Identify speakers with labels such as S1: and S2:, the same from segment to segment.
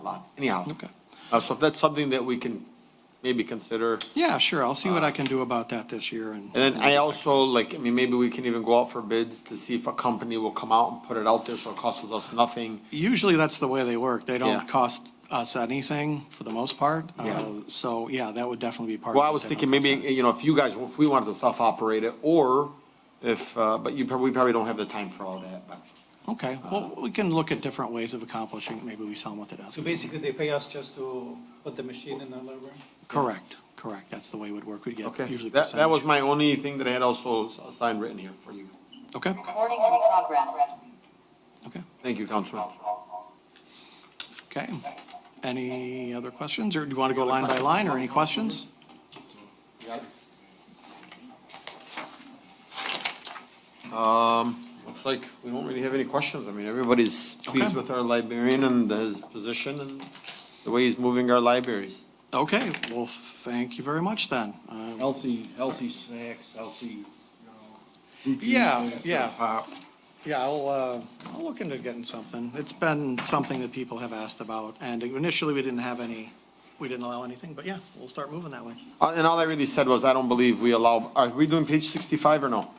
S1: a lot. Anyhow,
S2: Okay.
S1: uh, so if that's something that we can maybe consider.
S2: Yeah, sure, I'll see what I can do about that this year and.
S1: Uh, And then I also, like, I mean, maybe we can even go out for bids to see if a company will come out and put it out there, so it costs us nothing.
S2: Usually that's the way they work. They
S1: Yeah.
S2: don't cost us anything for the most part. Uh,
S1: Yeah.
S2: So, yeah, that would definitely be part of.
S1: Well, I
S2: it.
S1: was
S2: They
S1: thinking
S2: don't cost
S1: maybe,
S2: anything.
S1: you know, if you guys, if we wanted to self-operate it, or if, uh, but you probably, we probably don't have the time for all that, but.
S2: Okay, well,
S1: Uh,
S2: we can look at different ways of accomplishing it. Maybe we sell them with the desk.
S3: So basically, they pay us just to put the machine in the library?
S2: Correct, correct. That's the way it would work. We'd get
S1: Okay,
S2: usually.
S1: that, that was
S2: percentage.
S1: my only thing that I had also assigned written here for you.
S2: Okay,
S4: Recording in progress.
S2: okay,
S1: Thank you, Councilman.
S2: okay. Any other questions, or do you want to go line by line, or any questions?
S1: Um, looks like we don't really have any questions. I mean, everybody's pleased
S2: Okay.
S1: with our librarian and his position and the way he's moving our libraries.
S2: Okay, well, thank you very much then. Uh,
S5: Healthy, healthy snacks, healthy, you know. fruit juice,
S2: Yeah,
S5: that sort of
S2: yeah.
S5: pop.
S2: Yeah, I'll, uh, I'll look into getting something. It's been something that people have asked about, and initially, we didn't have any, we didn't allow anything, but yeah, we'll start moving that way.
S1: Uh, And all I really said was, I don't believe we allow, are we doing page sixty-five or no?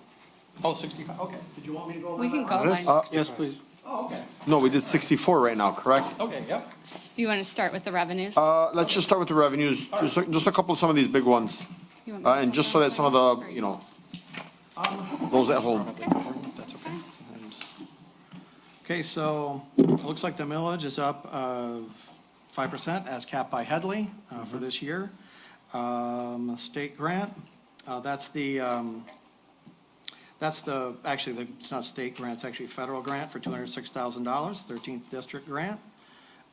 S2: Oh, sixty-five, okay. Did you want me to go?
S6: We
S2: line
S6: can
S2: by
S6: go
S2: line?
S6: line.
S1: Uh,
S3: Yes, please.
S2: Oh, okay,
S1: No, we did sixty-four right now, correct?
S2: okay, yep.
S6: So you want to start with the revenues?
S1: Uh, let's just start with the revenues, just, a- just a couple of some of these big ones.
S6: You want me
S1: Uh,
S6: to
S1: and
S6: go
S1: just so
S6: down
S1: that some of the,
S6: or
S1: you know,
S2: Um,
S1: those at home.
S2: Probably cover them, if that's okay. And- Okay, so it looks like the millage is up uh, five percent as capped by Headley uh, for this year. Um, State grant, uh, that's the, um, that's the, actually, the- it's not state grant, it's actually federal grant for two hundred and six thousand dollars, thirteenth district grant.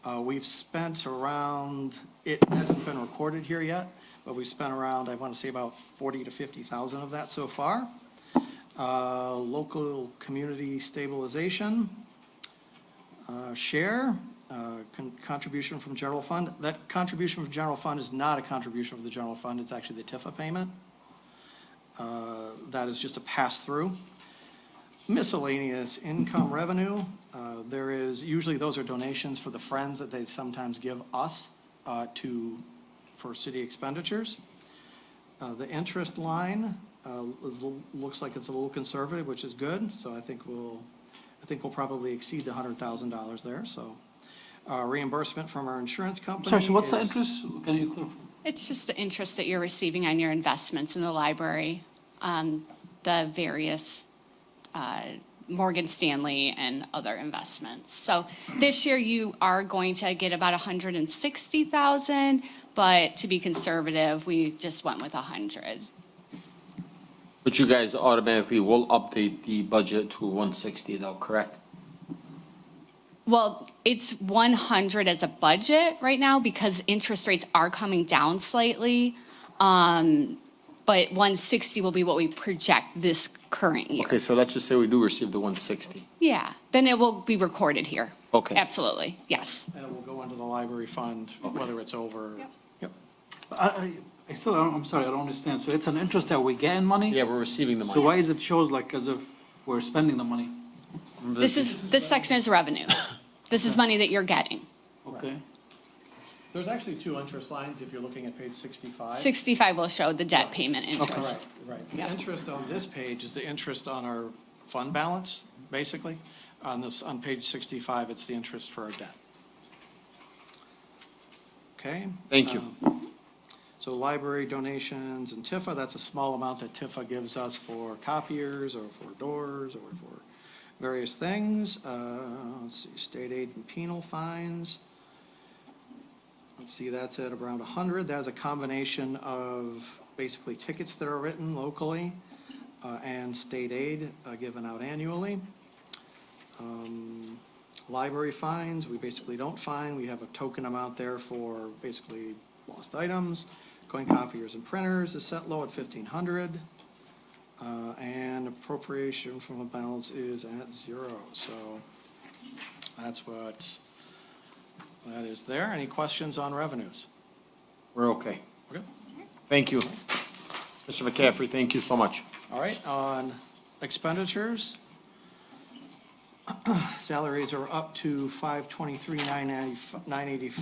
S2: Uh, We've spent around, it hasn't been recorded here yet, but we've spent around, I want to say about forty to fifty thousand of that so far. Uh, local community stabilization, uh, share, uh, con- contribution from general fund. That contribution from general fund is not a contribution from the general fund, it's actually the TIFA payment. Uh, That is just a pass-through. Miscellaneous income revenue, uh, there is, usually those are donations for the friends that they sometimes give us uh, to, for city expenditures. Uh, The interest line uh, is- looks like it's a little conservative, which is good, so I think we'll, I think we'll probably exceed the hundred thousand dollars there, so. Uh, Reimbursement from our insurance company.
S3: Sorry, so what's the
S2: is-
S3: interest? Can you clarify?
S6: It's just the interest that you're receiving on your investments in the library, on the various uh, Morgan Stanley and other investments. So this year, you are going to get about 160,000, but to be conservative, we just went with 100.
S1: But you guys automatically will update the budget to one sixty though, Oh, correct?
S6: Well, it's 100 as a budget right now because interest rates are coming down slightly. Um, But 160 will be what we project this current year.
S1: Okay, so let's just say we do receive the one sixty.
S6: Yeah, then it will be recorded here.
S1: Okay.
S6: Absolutely, yes.
S2: And it will go into the library fund, whether it's over.
S6: Yep.
S2: Yep.
S3: I, I, I still, don't- I'm sorry, I don't understand. So it's an interest that we get in money?
S1: Yeah, we're receiving the money.
S3: So why is it shows like as if we're spending the money?
S6: This is, this section is revenue. This is money that you're getting.
S3: Okay.
S2: There's actually two interest lines if you're looking at page sixty-five.
S6: 65 will show the debt payment
S2: Right,
S6: interest.
S2: right. The
S6: Yeah.
S2: interest on this page is the interest on our fund balance, basically. On this, on page sixty-five, it's the interest for our debt. Okay?
S1: Thank you.
S2: Um, So library donations and Tifa. that's a small amount that Tifa gives us for copiers or for doors or for various things. Uh, let's see, state aid and penal fines. Let's see, that's at around 100. That's a combination of basically tickets that are written locally uh, and state aid uh, given out annually. Um, Library fines, we basically don't fine. We have a token amount there for basically lost items. Coin copiers and printers is set low at 1,500. Uh, And appropriation from a balance is at zero. So that's what that is there. Any questions on revenues?
S1: We're okay.
S2: Okay.
S1: Thank you. Mr. McCaffrey, thank you so much.
S2: All right, on expenditures. Salaries are up to five twenty-three, nine ninety-five, nine eighty-five.